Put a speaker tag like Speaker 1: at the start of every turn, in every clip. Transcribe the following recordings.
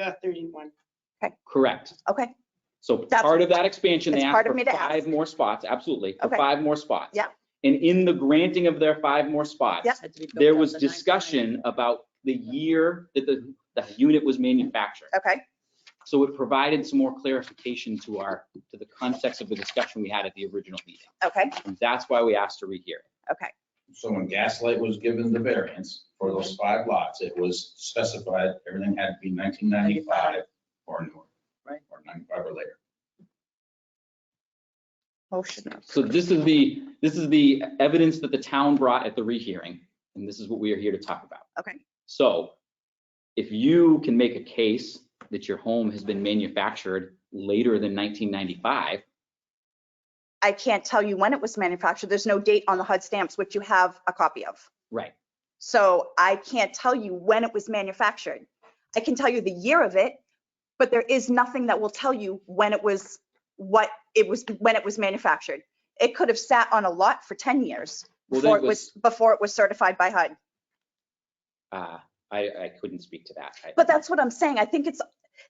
Speaker 1: uh, 31.
Speaker 2: Correct.
Speaker 3: Okay,
Speaker 2: So
Speaker 3: That's-
Speaker 2: part of that expansion, they
Speaker 3: it's
Speaker 2: asked
Speaker 3: part of
Speaker 2: for
Speaker 3: me to ask.
Speaker 2: five more spots, absolutely, for
Speaker 3: Okay.
Speaker 2: five more spots.
Speaker 3: Yeah.
Speaker 2: And in the granting of their five more spots,
Speaker 3: Yep.
Speaker 4: Had to be built
Speaker 2: there
Speaker 4: up
Speaker 2: was
Speaker 4: the nine times.
Speaker 2: discussion about the year that the, the unit was manufactured.
Speaker 3: okay,
Speaker 2: So it provided some more clarification to our, to the context of the discussion we had at the original meeting.
Speaker 3: okay,
Speaker 2: And that's why we asked to rehear. it.
Speaker 3: okay.
Speaker 5: So when Gaslight was given the variance for those five lots, it was specified, everything had to be nineteen ninety-five or newer.
Speaker 4: Right.
Speaker 5: Or ninety-five or later.
Speaker 3: Motion,
Speaker 2: So this is the, this is the evidence that the town brought at the rehearing, and this is what we are here to talk about.
Speaker 3: okay,
Speaker 2: So if you can make a case that your home has been manufactured later than 1995,
Speaker 3: I can't tell you when it was manufactured. There's no date on the HUD stamps, which you have a copy of.
Speaker 2: right,
Speaker 3: So I can't tell you when it was manufactured. I can tell you the year of it, but there is nothing that will tell you when it was, what it was, when it was manufactured. It could have sat on a lot for 10 years
Speaker 2: Well, then
Speaker 3: before
Speaker 2: it
Speaker 3: it was, before it was certified by HUD.
Speaker 2: uh, I, I couldn't speak to that. I-
Speaker 3: But that's what I'm saying. I think it's,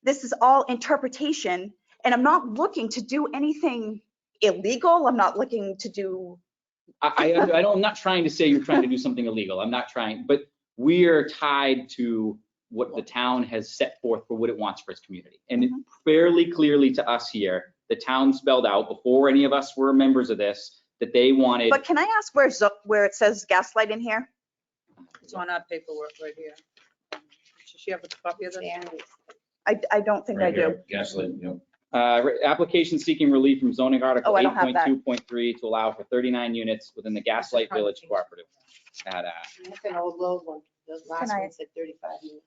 Speaker 3: this is all interpretation and I'm not looking to do anything illegal. I'm not looking to do,
Speaker 2: I, I, I don't, I'm not trying to say you're trying to do something illegal. I'm not trying, but we're tied to what the town has set forth for what it wants for its community. And it
Speaker 3: Mm-hmm.
Speaker 2: fairly clearly to us here, the town spelled out before any of us were members of this, that they wanted,
Speaker 3: but can I ask where, zo- where it says gaslight in here?
Speaker 4: It's on our paperwork right here. Does she have a copy of this?
Speaker 3: I, I don't think I
Speaker 5: Right
Speaker 3: do.
Speaker 5: here, Gaslight, you know,
Speaker 2: uh, re- application seeking relief from zoning article
Speaker 3: Oh, I
Speaker 2: eight
Speaker 3: don't have
Speaker 2: point
Speaker 3: that.
Speaker 2: two point three to allow for thirty-nine units within the Gaslight Village Cooperative. At, uh,
Speaker 1: That's an old, old one. The last
Speaker 3: I-
Speaker 1: one said 35 minutes.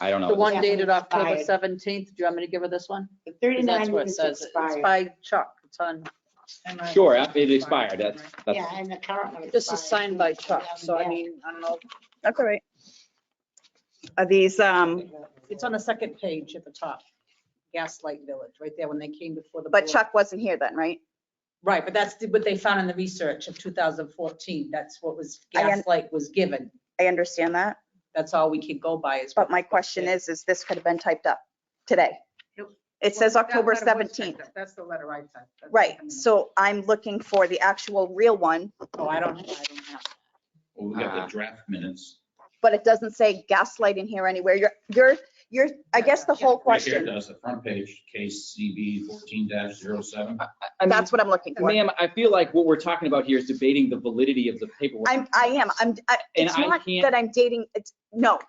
Speaker 2: uh, I don't know.
Speaker 4: The one
Speaker 1: Yeah.
Speaker 4: dated October
Speaker 1: Expired.
Speaker 4: seventeenth. Do you want me to give her this one?
Speaker 1: The
Speaker 4: 'Cause
Speaker 1: 39
Speaker 4: That's what it
Speaker 1: minutes
Speaker 4: says. It's
Speaker 1: expired.
Speaker 4: by Chuck. It's on.
Speaker 2: Sure, it expired. That's, that's.
Speaker 1: Yeah, and the current one expired.
Speaker 4: This is signed by Chuck, so I
Speaker 1: Yeah.
Speaker 4: mean, I don't know.
Speaker 3: That's all right. Are these, um,
Speaker 4: It's on the second page at the top. Gaslight Village, right there when they came before the.
Speaker 3: but
Speaker 4: board.
Speaker 3: Chuck wasn't here then, right?
Speaker 4: Right, but that's the- what they found in the research of 2014. That's what was,
Speaker 3: I un-
Speaker 4: Gaslight was given.
Speaker 3: I understand that,
Speaker 4: That's all we could go by is.
Speaker 3: but my question is, is this could have been typed up today?
Speaker 4: Yep.
Speaker 3: It says October 17th.
Speaker 4: That's the letter I sent.
Speaker 3: Right, so I'm looking for the actual real one,
Speaker 4: Oh, I don't, I don't have.
Speaker 5: well, we got
Speaker 2: Ah.
Speaker 5: the draft minutes.
Speaker 3: but it doesn't say gaslight in here anywhere. You're, you're, you're, I guess the whole
Speaker 5: Right here
Speaker 3: question,
Speaker 5: does the front page, case CB fourteen 7
Speaker 2: I mean,
Speaker 3: that's what I'm looking for.
Speaker 2: Ma'am, I feel like what we're talking about here is debating the validity of the paperwork.
Speaker 3: I'm, I am, I'm, I-
Speaker 2: And
Speaker 3: it's
Speaker 2: I
Speaker 3: not
Speaker 2: can't-
Speaker 3: that I'm dating, it's, no.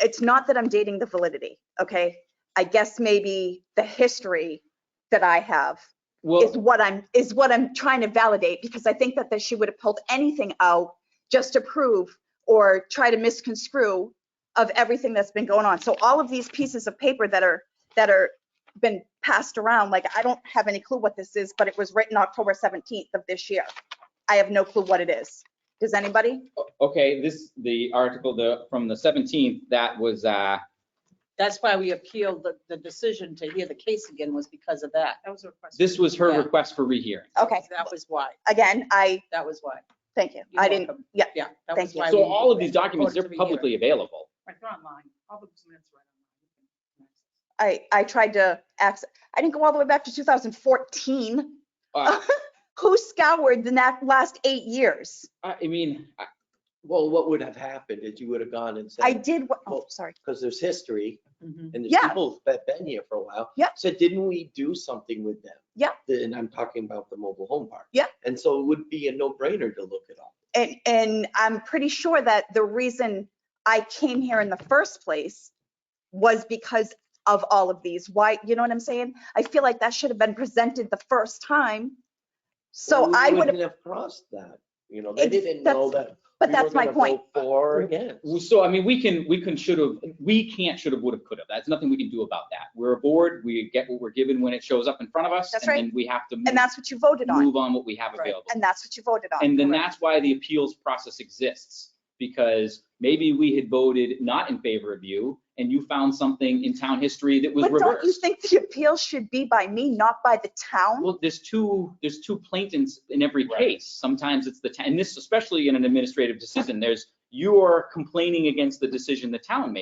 Speaker 3: It's not that I'm dating the validity, okay? I guess maybe the history that I have is
Speaker 2: Well,
Speaker 3: what I'm, is what I'm trying to validate, because I think that, that she would have pulled anything out just to prove or try to misconstrue of everything that's been going on. So all of these pieces of paper that are, that are been passed around, like, I don't have any clue what this is, but it was written October 17th of this year. I have no clue what it is. Does anybody?
Speaker 2: okay, this, the article, the, from the 17th, that was, uh,
Speaker 4: That's why we appealed the, the decision to hear the case again was because of that. That was a request.
Speaker 2: this was her
Speaker 4: Yeah.
Speaker 2: request for rehearing.
Speaker 3: Okay,
Speaker 4: That was why,
Speaker 3: again, I,
Speaker 4: that was why.
Speaker 3: thank you.
Speaker 4: You're
Speaker 3: I didn't,
Speaker 4: welcome.
Speaker 3: yeah,
Speaker 4: Yeah. that
Speaker 3: thank
Speaker 4: was
Speaker 3: you.
Speaker 4: why
Speaker 2: So
Speaker 4: we-
Speaker 2: all of these documents, they're
Speaker 4: order to rehear.
Speaker 2: publicly available.
Speaker 4: Right, they're online. All those minutes are online.
Speaker 3: I, I tried to access, I didn't go all the way back to 2014.
Speaker 2: Uh,
Speaker 3: Who scoured the na- last eight years?
Speaker 2: I I mean, I-
Speaker 6: Well, what would have happened is you would have gone and
Speaker 3: I
Speaker 6: said,
Speaker 3: did, what- oh,
Speaker 6: Well,
Speaker 3: sorry.
Speaker 6: because there's history
Speaker 4: Mhm.
Speaker 6: and
Speaker 3: Yeah.
Speaker 6: there's people that been here for a while.
Speaker 3: Yeah.
Speaker 6: So didn't we do something with them?
Speaker 3: Yeah.
Speaker 6: And I'm talking about the mobile home park.
Speaker 3: Yeah.
Speaker 6: And so it would be a no-brainer to look it up.
Speaker 3: And, and I'm pretty sure that the reason I came here in the first place was because of all of these. Why, you know what I'm saying? I feel like that should have been presented the first time. So
Speaker 6: We
Speaker 3: I would,
Speaker 6: wouldn't have crossed that, you know, they
Speaker 3: Ex-
Speaker 6: didn't know that.
Speaker 3: but
Speaker 6: we were
Speaker 3: that's my
Speaker 6: gonna
Speaker 3: point.
Speaker 6: vote For or against.
Speaker 2: Well, So, I mean, we can, we can, should have, we can't, should have, would have, could have. That's nothing we can do about that. We're a board, we get what we're given when it shows up in front of us.
Speaker 3: That's
Speaker 2: And then we have to
Speaker 3: And
Speaker 2: move-
Speaker 3: that's what you voted on.
Speaker 2: move on what we have
Speaker 4: Right.
Speaker 2: available.
Speaker 3: And that's what you voted on.
Speaker 2: And then
Speaker 3: correct?
Speaker 2: that's why the appeals process exists, because maybe we had voted not in favor of you, and you found something in town history that was
Speaker 3: But don't you
Speaker 2: reversed.
Speaker 3: think the appeal should be by me, not by the town?
Speaker 2: Well, there's two, there's two plaintiffs in every
Speaker 5: Right.
Speaker 2: case. Sometimes it's the, town, and this, especially in an administrative decision, there's, you're complaining against the decision the town made.